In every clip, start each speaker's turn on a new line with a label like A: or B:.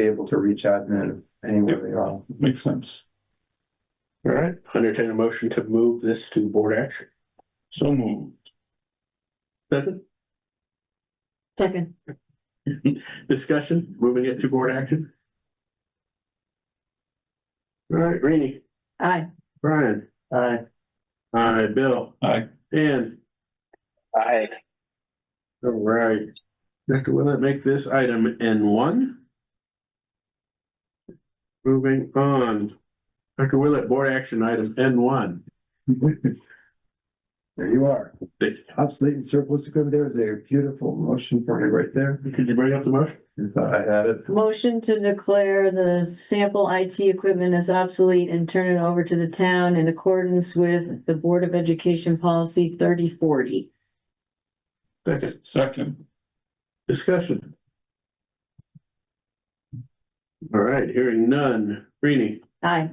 A: be able to reach admin anywhere they are.
B: Makes sense.
C: All right, entertain a motion to move this to board action.
B: So moved.
C: Second,
D: Second,
C: discussion, moving it to board action. All right, Rainey,
D: aye.
C: Brian. Aye. Aye, Bill,
B: I,
C: Dan.
E: Aye.
C: All right. Dr. Willett, make this item N one. Moving on. Dr. Willett, board action item N one.
A: There you are.
C: Did
A: Obsolete and surplus equipment, there is a beautiful motion for you right there.
C: did you bring up the motion?
A: I thought I had it.
D: Motion to declare the sample IT equipment as obsolete and turn it over to the town in accordance with the Board of Education Policy thirty forty.
C: Second,
B: second,
C: discussion. All right, hearing none. Rainey,
D: Aye,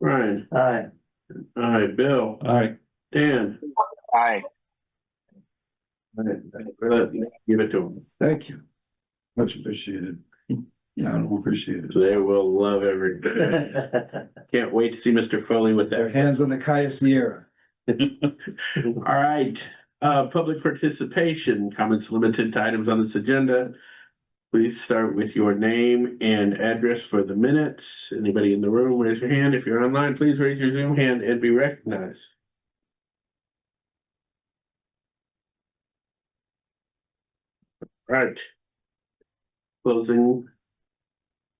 C: Brian,
A: Aye.
C: aye, Bill,
B: I,
C: Dan.
E: Aye.
C: Willett, Give it to them.
A: Thank you. Much appreciated. Yeah, I appreciate it.
C: They will love every. Can't wait to see Mr. Foley with
A: Their
C: that.
A: hands on the Cayuse
C: All right, uh, public participation, comments limited to items on this agenda. Please start with your name and address for the minutes. Anybody in the room, raise your hand. If you're online, please raise your Zoom hand and be recognized. Right. Closing.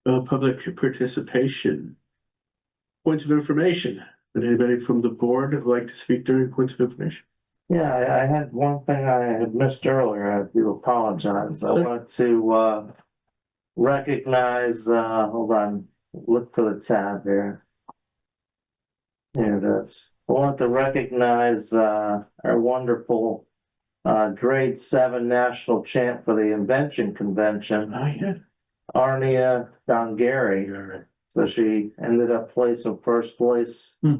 C: Uh, public participation. Points of information. Would anybody from the board like to speak during points of information?
F: Yeah, I, I had one thing I had missed earlier. I do apologize. I
C: Okay.
F: wanted to, uh, recognize, uh, hold on, look for the tab here. Here it is. I want to recognize, uh, our wonderful, uh, grade seven national champ for the invention convention,
C: Oh, yeah.
F: Arnia Dongari.
C: You're
F: So she ended up placing first place
B: Hmm.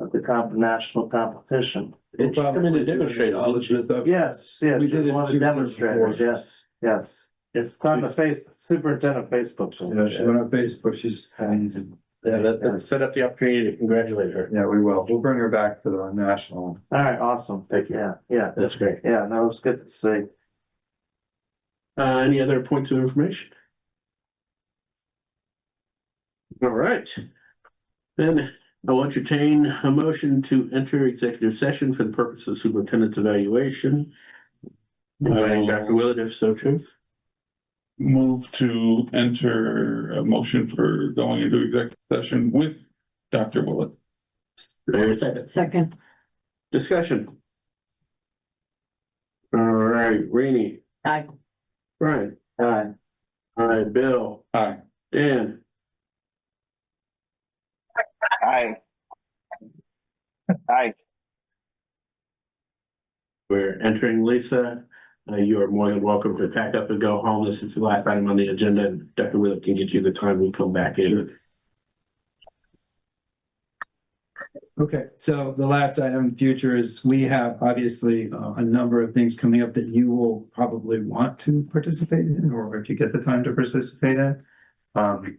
F: at the comp, national competition.
C: right.
A: Air.
C: Come in and demonstrate.
A: Acknowledge it, though.
F: Yes, yes,
A: We did
F: just
A: it
F: one of
A: two
F: the
A: years
F: demonstrators,
A: before.
F: yes, yes. It's on the face, superintendent Facebook. page.
A: Yeah, she went on Facebook, she's amazing.
C: Yeah, that, that set up the opportunity to congratulate her.
A: Yeah, we will. We'll bring her back for the national.
F: All right, awesome. Thank you. Yeah, yeah,
C: That's great.
F: yeah, no, it's good to see.
C: Uh, any other points of information? All right. Then I'll entertain a motion to enter executive session for the purpose of superintendent's evaluation. Inviting Dr. Willett, if so true.
B: move to enter a motion for going into executive session with Dr. Willett.
D: second,
C: Discussion. All right, Rainey,
D: aye.
C: Brian,
F: Hi,
C: all right, Bill,
B: Aye.
C: Dan.
E: Aye. Aye.
C: We're entering Lisa. Uh, you are more than welcome to pack up and go home. This is the last item on the agenda. and Dr. Willett can get you the time we come back in.
A: Okay, so the last item in the future is we have obviously uh, a number of things coming up that you will probably want to participate in, or if you get the time to participate in. Um,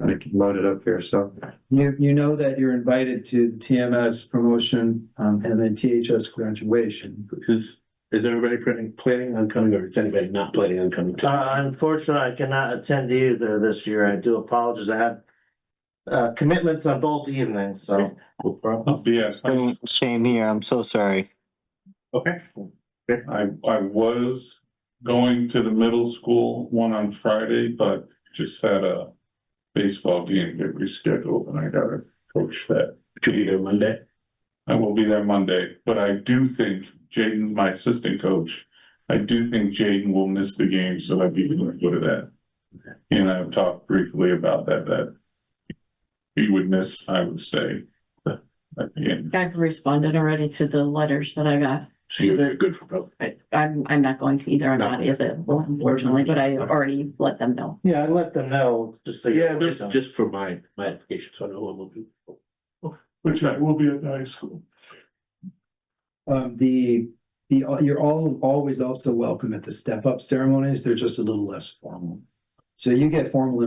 A: I can load it up here, so you, you know that you're invited to the TMS promotion, um, and then THS graduation.
C: Is, is everybody planning, planning on coming or is anybody not planning on coming?
F: Uh, unfortunately, I cannot attend either this year. I do apologize. I had uh, commitments on both evenings, so.
C: No problem.
B: Yeah, I,
G: Same, same here. I'm so sorry.
C: Okay.
B: I I was going to the middle school one on Friday, but just had a baseball game get rescheduled and I gotta coach that.
C: Should be there Monday.
B: I will be there Monday, but I do think Jaden's my assistant coach. I do think Jaden will miss the game, so I'd be going to go to that. And I've talked briefly about that, that he would miss, I would stay uh, at the end.
D: I've responded already to the letters that I got.
C: So you're good for both.
D: I, I'm, I'm not going to either, I'm not available unfortunately, but I already let them know.
F: Yeah, I let them know, just so. you-
C: Yeah, just, just for my, my application, so I know what we'll do.
B: Which I will be at the high school.
A: Um, the, the, you're all, always also welcome at the step up ceremonies. They're just a little less formal. So you get formal